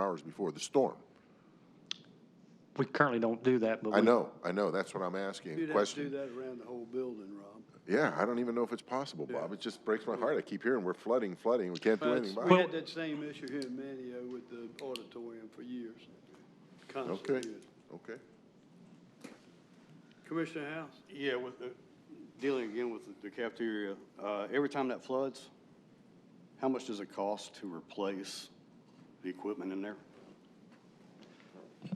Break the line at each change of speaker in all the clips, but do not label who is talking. hours before the storm.
We currently don't do that, but
I
we,
know, I know, that's what I'm asking,
You'd
the
have to do
question.
that around the whole building, Rob.
Yeah, I don't even know if it's possible, Bob, it just breaks my heart, I keep hearing we're flooding, flooding, we can't do
But
anything
it's-
about it.
We had that same issue here in Manio with the auditorium for years.
Okay,
Constantly.
okay.
Commissioner House?
Yeah, with the, dealing again with the cafeteria, uh, every time that floods, how much does it cost to replace the equipment in there?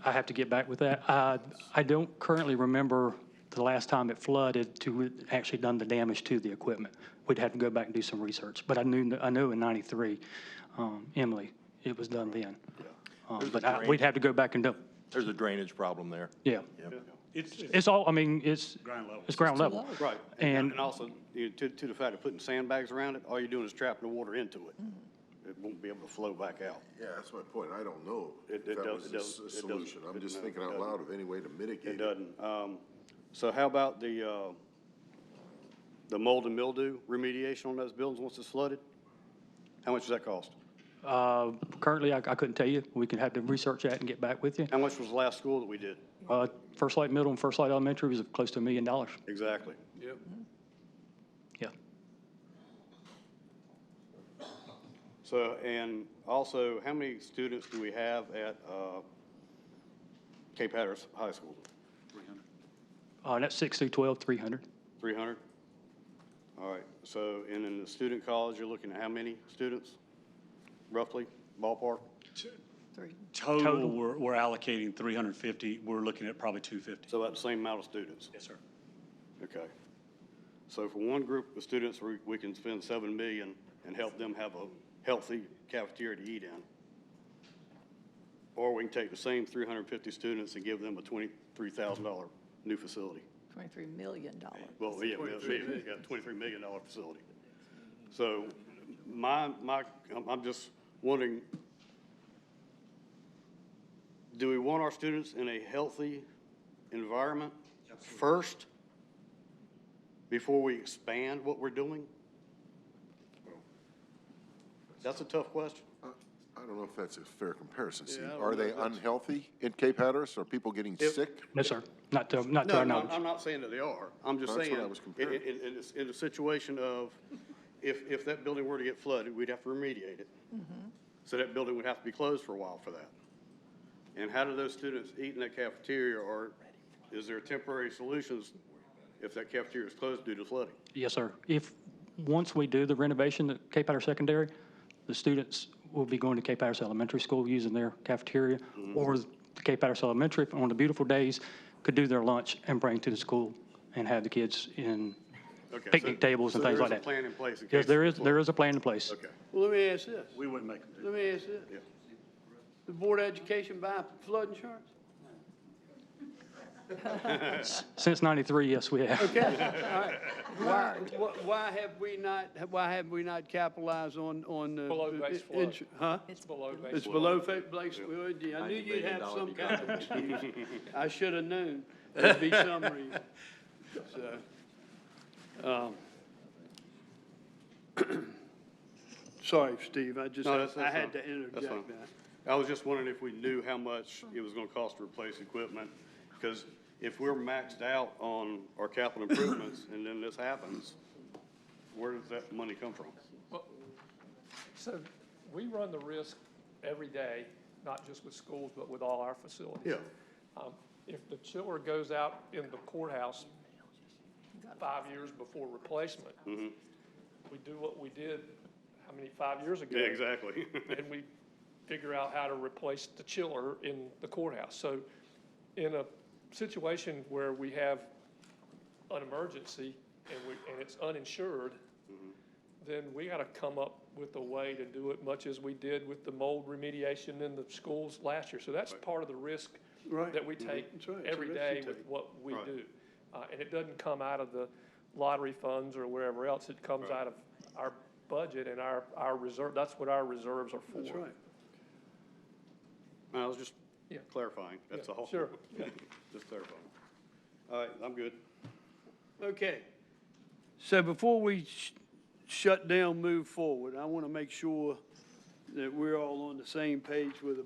I have to get back with that. Uh, I don't currently remember the last time it flooded to actually done the damage to the equipment. We'd have to go back and do some research, but I knew, I know in ninety-three, um, Emily, it was done then. Um, but I, we'd have to go back and do,
There's a drainage problem there.
yeah.
It's, it's-
It's all, I mean, it's. Ground level. It's ground level.
Right.
And-
And also, you know, to, to the fact of putting sandbags around it, all you're doing is trapping the water into it. It won't be able to flow back out.
Yeah, that's my point, I don't know
It-
if
it
that
does-
was
it
a
does-
s- a
it does-
solution, I'm
it-
just
no,
thinking
it
out
doesn't.
loud of any way to
It
mitigate it.
doesn't. Um, so how about the, uh, the mold and mildew remediation on those buildings once it's flooded? How much does that cost?
Uh, currently, I, I couldn't tell you. We could have to research that and get back with you.
How much was the last school that we did?
Uh, First Light Middle and First Light Elementary was close to a million dollars.
Exactly.
Yep.
Yeah.
So, and also, how many students do we have at uh, Cape Hatteras High School?
Uh, that's six through 12, 300.
300? All right, so, and in the student college, you're looking at how many students, roughly, ballpark?
total,
Total.
we're, we're allocating 350, we're looking at probably 250.
So about the same amount of students?
Yes, sir.
Okay. So for one group of students, we we can spend 7 million and help them have a healthy cafeteria to eat in. Or we can take the same 350 students and give them a $23,000 new facility.
$23 million.
Well, yeah, we have, we got a twenty-three million dollar facility. So my, my, I'm, I'm just wondering, do we want our students in a healthy environment first? Before we expand what we're doing? That's a tough question.
I I don't know if that's a fair comparison, Steve.
I don't
Are
know
they
if that's-
unhealthy in Cape Hatteris? Are people getting
If-
sick?
No, sir. Not to, not to
No,
our
no,
knowledge.
I'm not saying that they are. I'm just
That's
saying,
what I was
in,
comparing.
in, in, this- in the situation of, if, if that building were to get flooded, we'd have to remediate it.
Mm-hmm.
So that building would have to be closed for a while for that. And how do those students eat in that cafeteria, or is there temporary solutions if that cafeteria is closed due to flooding?
Yes, sir. If, once we do the renovation at Cape Hatteras Secondary, the students will be going to Cape Hatteras Elementary School using their cafeteria,
Mm-hmm.
or the Cape Hatteras Elementary, on the beautiful days, could do their lunch and bring to the school and have the kids in
Okay, so-
picnic tables and
so there
things like
is a
that.
plan in place in
Yes,
case
there
there's
is,
a flood.
there is a plan in place.
Okay.
Well, let me ask this.
We wouldn't make them do
Let me ask this.
Yeah.
The Board of Education buy flood insurance?
Since 93, yes, we have.
Okay, all right. Why, wh- why have we not, why have we not capitalized on, on? the-
Below base
uh, ins- Huh?
It's below base.
It's below fa- base, well, yeah, I knew you'd have some kind of excuse. I should have known there'd be some reason, so. um, Sorry, Steve, I just,
No, that's-
I
that's
had
fine.
to
That's
interject
fine.
that.
I was just wondering if we knew how much it was gonna cost to replace equipment, because if we're maxed out on our capital improvements and then this happens, where does that money come from?
So we run the risk every day, not just with schools, but with all our facilities. Um, If the chiller goes out in the courthouse five years before replacement,
Mm-hmm.
we do what we did, how many, five years ago?
Yeah, exactly.
and we figure out how to replace the chiller in the courthouse. So in a situation where we have an emergency and we, and it's uninsured,
Mm-hmm.
then we gotta come up with a way to do it much as we did with the mold remediation in the schools last year. So that's part of the risk
Right. Mm-hmm.
that we take
That's right. It's a
every
risk
day
you
with
take.
what we
Right.
do. Uh, and it doesn't come out of the lottery funds or wherever else, it comes out of our budget and our, our reserve, that's what our reserves are for.
That's right.
I was just
Yeah.
clarifying, that's
Yeah,
all.
sure.
Just clarifying. All right, I'm good.
Okay. So before we sh- shut down, move forward, I want to make sure that we're all on the same page with the